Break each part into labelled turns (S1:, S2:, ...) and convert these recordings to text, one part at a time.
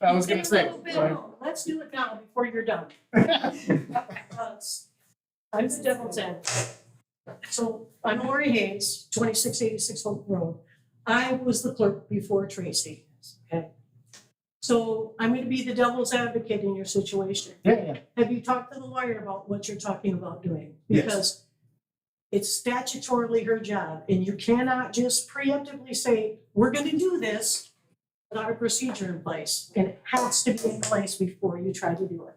S1: I was gonna say.
S2: Wait, wait, wait, no, Let's do it now before you're done. Uh, I'm the devil's advocate. So I'm Lori Hayes, twenty-six eighty-six Hope Road. I was the clerk before Tracy, okay? So I'm gonna be the devil's advocate in your situation.
S1: Yeah, yeah.
S2: Have you talked to the lawyer about what you're talking about doing?
S1: Yes.
S2: Because it's statutorily her job, and you cannot just preemptively say, we're gonna do this without a procedure in place, and it has to be in place before you try to do it.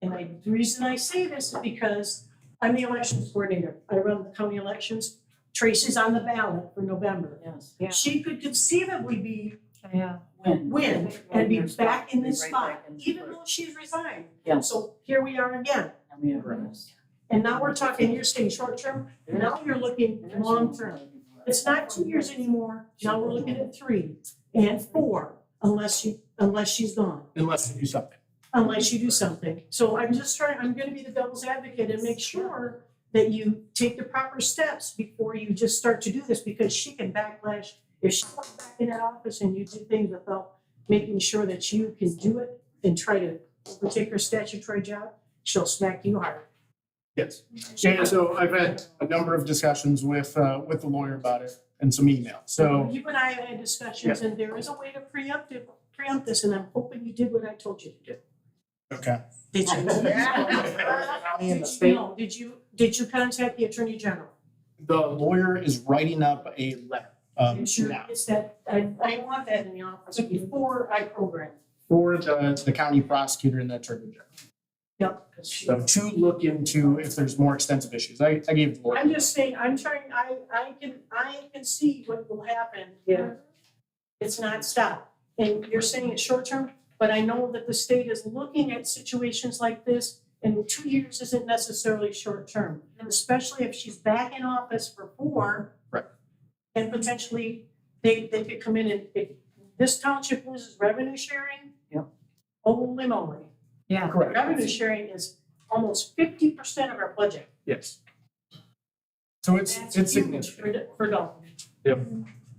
S2: And I, the reason I say this is because I'm the elections coordinator, I run the county elections, Tracy's on the ballot for November.
S3: Yes, yeah,
S2: She could conceivably be
S3: yeah.
S2: win and be back in this
S3: Right back
S2: spot,
S3: in the
S2: even
S3: spot.
S2: though she's resigned.
S3: Yeah.
S2: So here we are again.
S3: And we have rules.
S2: And now we're talking, you're saying short term, now you're looking long term. It's not two years anymore, now we're looking at three and four, unless you, unless she's gone,
S1: Unless you do something.
S2: unless you do something. So I'm just trying, I'm gonna be the devil's advocate and make sure that you take the proper steps before you just start to do this, because she can backlash. If she went back in that office and you do things without making sure that you can do it and try to overtake her statutory job, she'll smack you hard.
S1: Yes. Yeah, so I've had a number of discussions with, uh, with the lawyer about it and some emails. So,
S2: You and I have had discussions, and there is a way to preempt it, preempt this, and I'm hoping you did what I told you to do.
S1: okay.
S2: Did you?
S1: County and the
S2: Did you,
S1: state.
S2: no, did you, did you contact the Attorney General?
S1: The lawyer is writing up a letter, um,
S2: It's your-
S1: now
S2: It's that, I, I want that in the office before I program.
S1: for the, the county prosecutor and the attorney general.
S2: Yep, 'cause she-
S1: So to look into if there's more extensive issues. I, I gave the lawyer.
S2: I'm just saying, I'm trying, I, I can, I can see what will happen.
S3: Yeah.
S2: It's not stopped. And you're saying it's short term, but I know that the state is looking at situations like this and two years isn't necessarily short term, especially if she's back in office for four.
S1: Right.
S2: And potentially, they, they could come in and, if this township loses revenue sharing.
S3: Yep.
S2: Holy moly.
S3: Yeah.
S1: Correct.
S2: Revenue sharing is almost fifty percent of our budget.
S1: Yes. So it's,
S2: That's
S1: it's
S2: huge
S1: significant.
S2: For, for Dalton.
S1: Yep.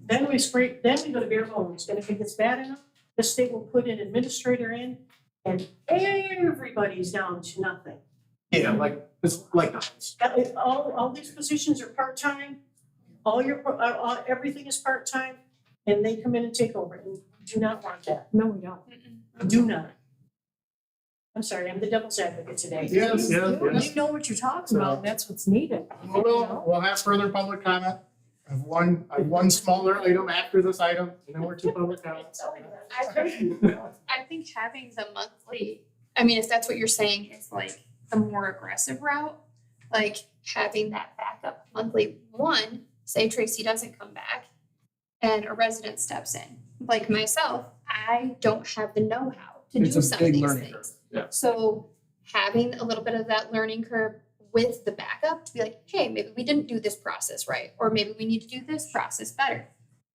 S2: Then we scrape, then we go to bare bones, and if it gets bad enough, the state will put an administrator in, and everybody's down to nothing.
S1: Yeah, like, it's like knives.
S2: That is- All, all these positions are part-time, all your, uh, uh, everything is part-time, and they come in and take over, and we do not want that,
S3: No, we don't.
S2: do not. I'm sorry, I'm the devil's advocate today.
S1: Yes, yes, yes.
S3: You know what you're talking about, and that's what's needed.
S1: We'll, we'll have further public comment. I have one, I have one smaller item after this item, and then we're to public comments.
S4: I think, I think having the monthly, I mean, if that's what you're saying, is like the more aggressive route, like having that backup monthly one, say Tracy doesn't come back and a resident steps in, like myself, I don't have the know-how to do
S1: It's a
S4: some of
S1: big
S4: these
S1: learning curve.
S4: things.
S1: Yeah.
S4: So having a little bit of that learning curve with the backup to be like, hey, maybe we didn't do this process right, or maybe we need to do this process better.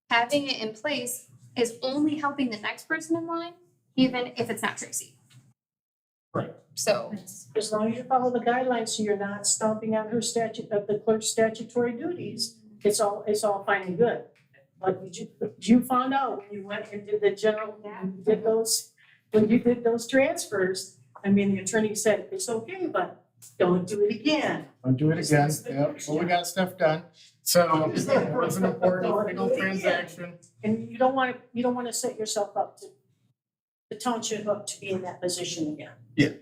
S4: Having it in place is only helping the next person in line, even if it's not Tracy.
S1: Right.
S4: So,
S2: As long as you follow the guidelines, so you're not stomping on her statute, of the clerk's statutory duties, it's all, it's all fine and good. Like you, you found out, when you went and did the general, you did those, when you did those transfers, I mean, the attorney said, it's okay, but don't do it again.
S1: Don't do it again. Yep, well, we got stuff done. So it's an important, critical transaction.
S2: And you don't wanna, you don't wanna set yourself up to, the township up to be in that position again.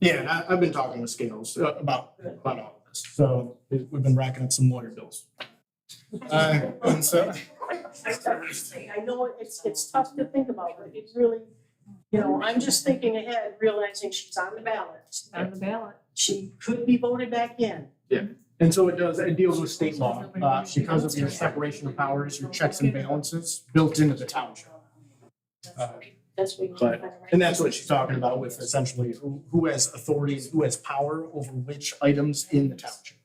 S1: Yeah, and I, I've been talking with Scales uh, about, about all of this. So we've been racking up some lawyer bills. Uh, and so,
S2: I I say, I know it's, it's tough to think about, but it's really, you know, I'm just thinking ahead, realizing she's on the ballot.
S3: On the ballot.
S2: She could be voted back in.
S1: and so it does, it deals with state law, uh, because of your separation of powers, your checks and balances built into the township. Uh,
S2: That's what.
S1: But- And that's what she's talking about with essentially who, who has authorities, who has power over which items in the township.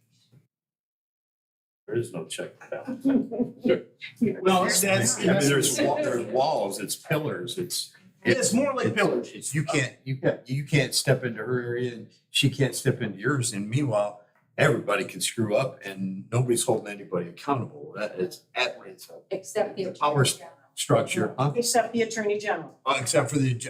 S5: There is no check and balance.
S1: Well,
S5: I
S1: that's,
S5: mean, there's, wa- there's walls, it's pillars, it's,
S1: it's more like pillage.
S5: it's, you can't, you, you can't step into her area and she can't step into yours. And meanwhile, everybody can screw up and nobody's holding anybody accountable. That is, that is a
S6: Except the.
S5: power s-
S2: structure, huh?
S5: except the attorney general.
S2: Uh, Except for the